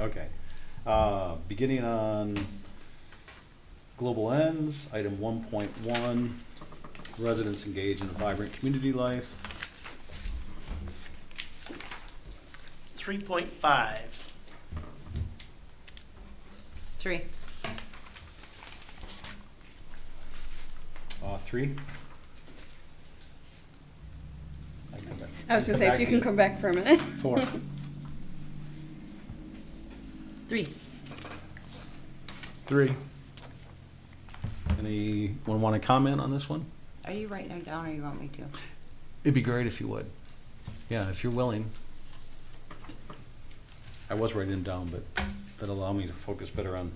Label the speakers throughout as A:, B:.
A: Okay. Uh, Beginning on global ends, item one point one, residents engage in a vibrant community life.
B: 3.5,
C: Three.
A: Uh, Three? I can come back-
D: I was gonna say, if you
A: to
D: can
A: it.
D: come back for a minute.
A: Four.
C: Three.
A: Three. Anyone want to comment on this one?
C: Are you writing it down or you want me to?
A: It'd be great if you would. Yeah, if you're willing. I was writing them down, but that allow me to focus better on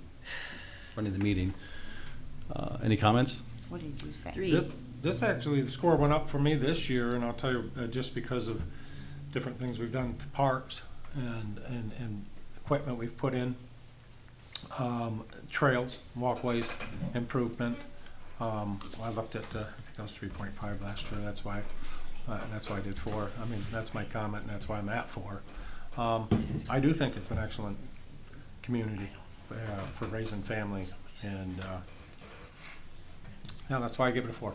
A: running the meeting. Uh, Any comments?
C: What did you say?
E: This, this actually, the score went up for me this year, and I'll tell you, uh, just because of different things we've done to parks and, and, and equipment we've put in. Um, trails, walkways, improvement. Um, I looked at, uh, I think I was three point five last year, that's why, uh, that's why I did four. I mean, that's my comment, and that's why I'm at four. Um, I do think it's an excellent community, uh, for raising family, and, uh, yeah, that's why I give it a four.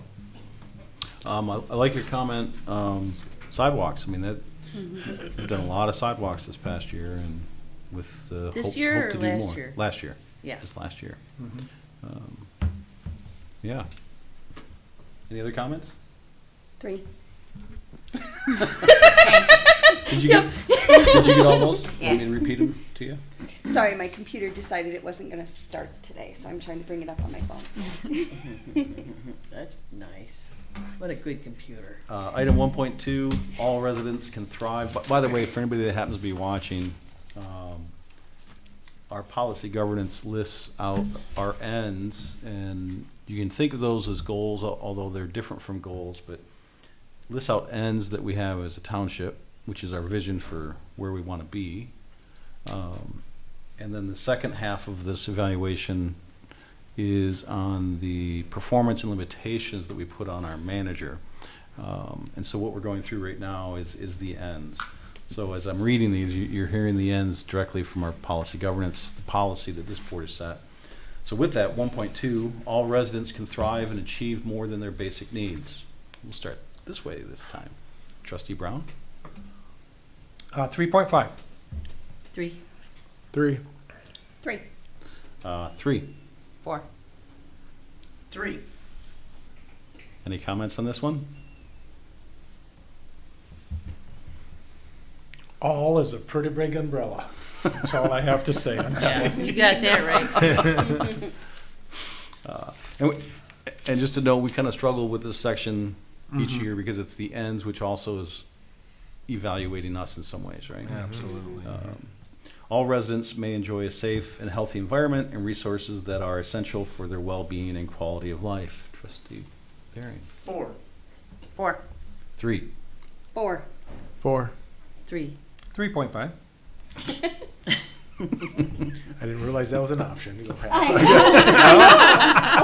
A: Um, I I like your comment, um, sidewalks. I mean, that,
F: Mm-hmm.
A: we've done a lot of sidewalks this past year and with the hope hope to do more.
F: This year or last year?
A: Last year,
F: Yeah.
A: just last year. Um, Yeah. Any other comments?
D: Three.
A: Did you get, did you get all those? Want me to repeat them to you?
D: Sorry, my computer decided it wasn't gonna start today, so I'm trying to bring it up on my phone.
F: That's nice. What a good computer.
A: Uh, item one point two, all residents can thrive. By, by the way, for anybody that happens to be watching, um, our policy governance lists out our ends, and you can think of those as goals, al- although they're different from goals, but lists out ends that we have as a township, which is our vision for where we want to be. Um, and then the second half of this evaluation is on the performance and limitations that we put on our manager. Um, And so what we're going through right now is, is the ends. So as I'm reading these, you- you're hearing the ends directly from our policy governance, the policy that this board has set. So with that, one point two, all residents can thrive and achieve more than their basic needs. We'll start this way this time. Trustee Brown?
E: Uh, three point five.
C: Three.
E: Three.
D: Three.
A: Uh, Three,
C: Four.
B: 3,
A: any comments on this one?
E: All is a pretty big umbrella. That's all I have to say on that.
F: Yeah, you got that right.
A: And, we- and just to know, we kind of struggle with this section each
E: Mm-hmm.
A: year because it's the ends, which also is evaluating us in some ways, right?
E: Absolutely.
A: Um, All residents may enjoy a safe and healthy environment and resources that are essential for their well-being and quality of life. Trustee Barry.
B: 4,
C: Four.
A: Three.
D: Four.
E: Four.
C: Three.
E: Three point five.
G: I didn't realize that was an option. Go ahead.
D: I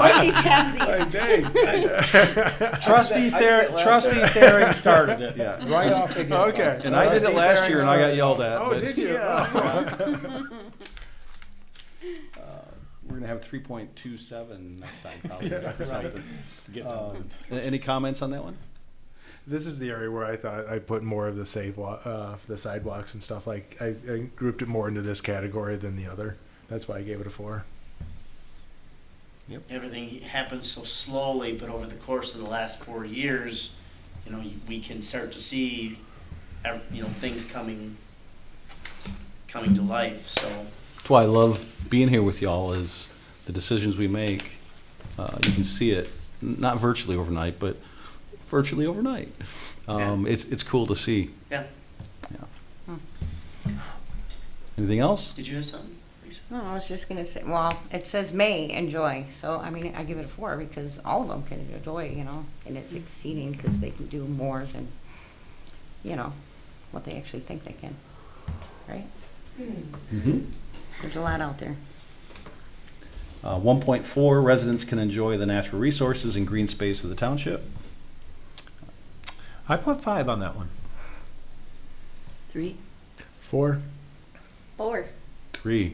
D: know. I like these halfsies.
E: Trustee Ther, trustee Thering started it.
A: Yeah.
E: Right off the get.
G: Okay.
A: And I did it last year and I got yelled at.
G: Oh,
A: but
G: did you?
A: We're gonna have three point two seven next time probably or something. Um, a- Any comments on that one?
G: This is the area where I thought I put more of the save wa- uh, the sidewalks and stuff. Like I, I grouped it more into this category than the other. That's why I gave it a four.
B: everything happens so slowly, but over the course of the last four years, you know, we can start to see, ev- you know, things coming, coming to life, so.
A: That's why I love being here with y'all is the decisions we make, uh, you can see it, n- not virtually overnight, but virtually overnight. Um, it's, it's cool to see.
B: Yeah.
A: Yeah. Anything else?
B: Did you have something, Lisa?
C: No, I was just gonna say, well, it says may enjoy, so I mean, I give it a four because all of them can enjoy, you know, and it's exceeding because they can do more than, you know, what they actually think they can, right? There's a lot out there.
A: Uh, one point four, residents can enjoy the natural resources and green space of the township.
E: I put five on that one.
F: Three.
G: Four.
D: Four.
A: three.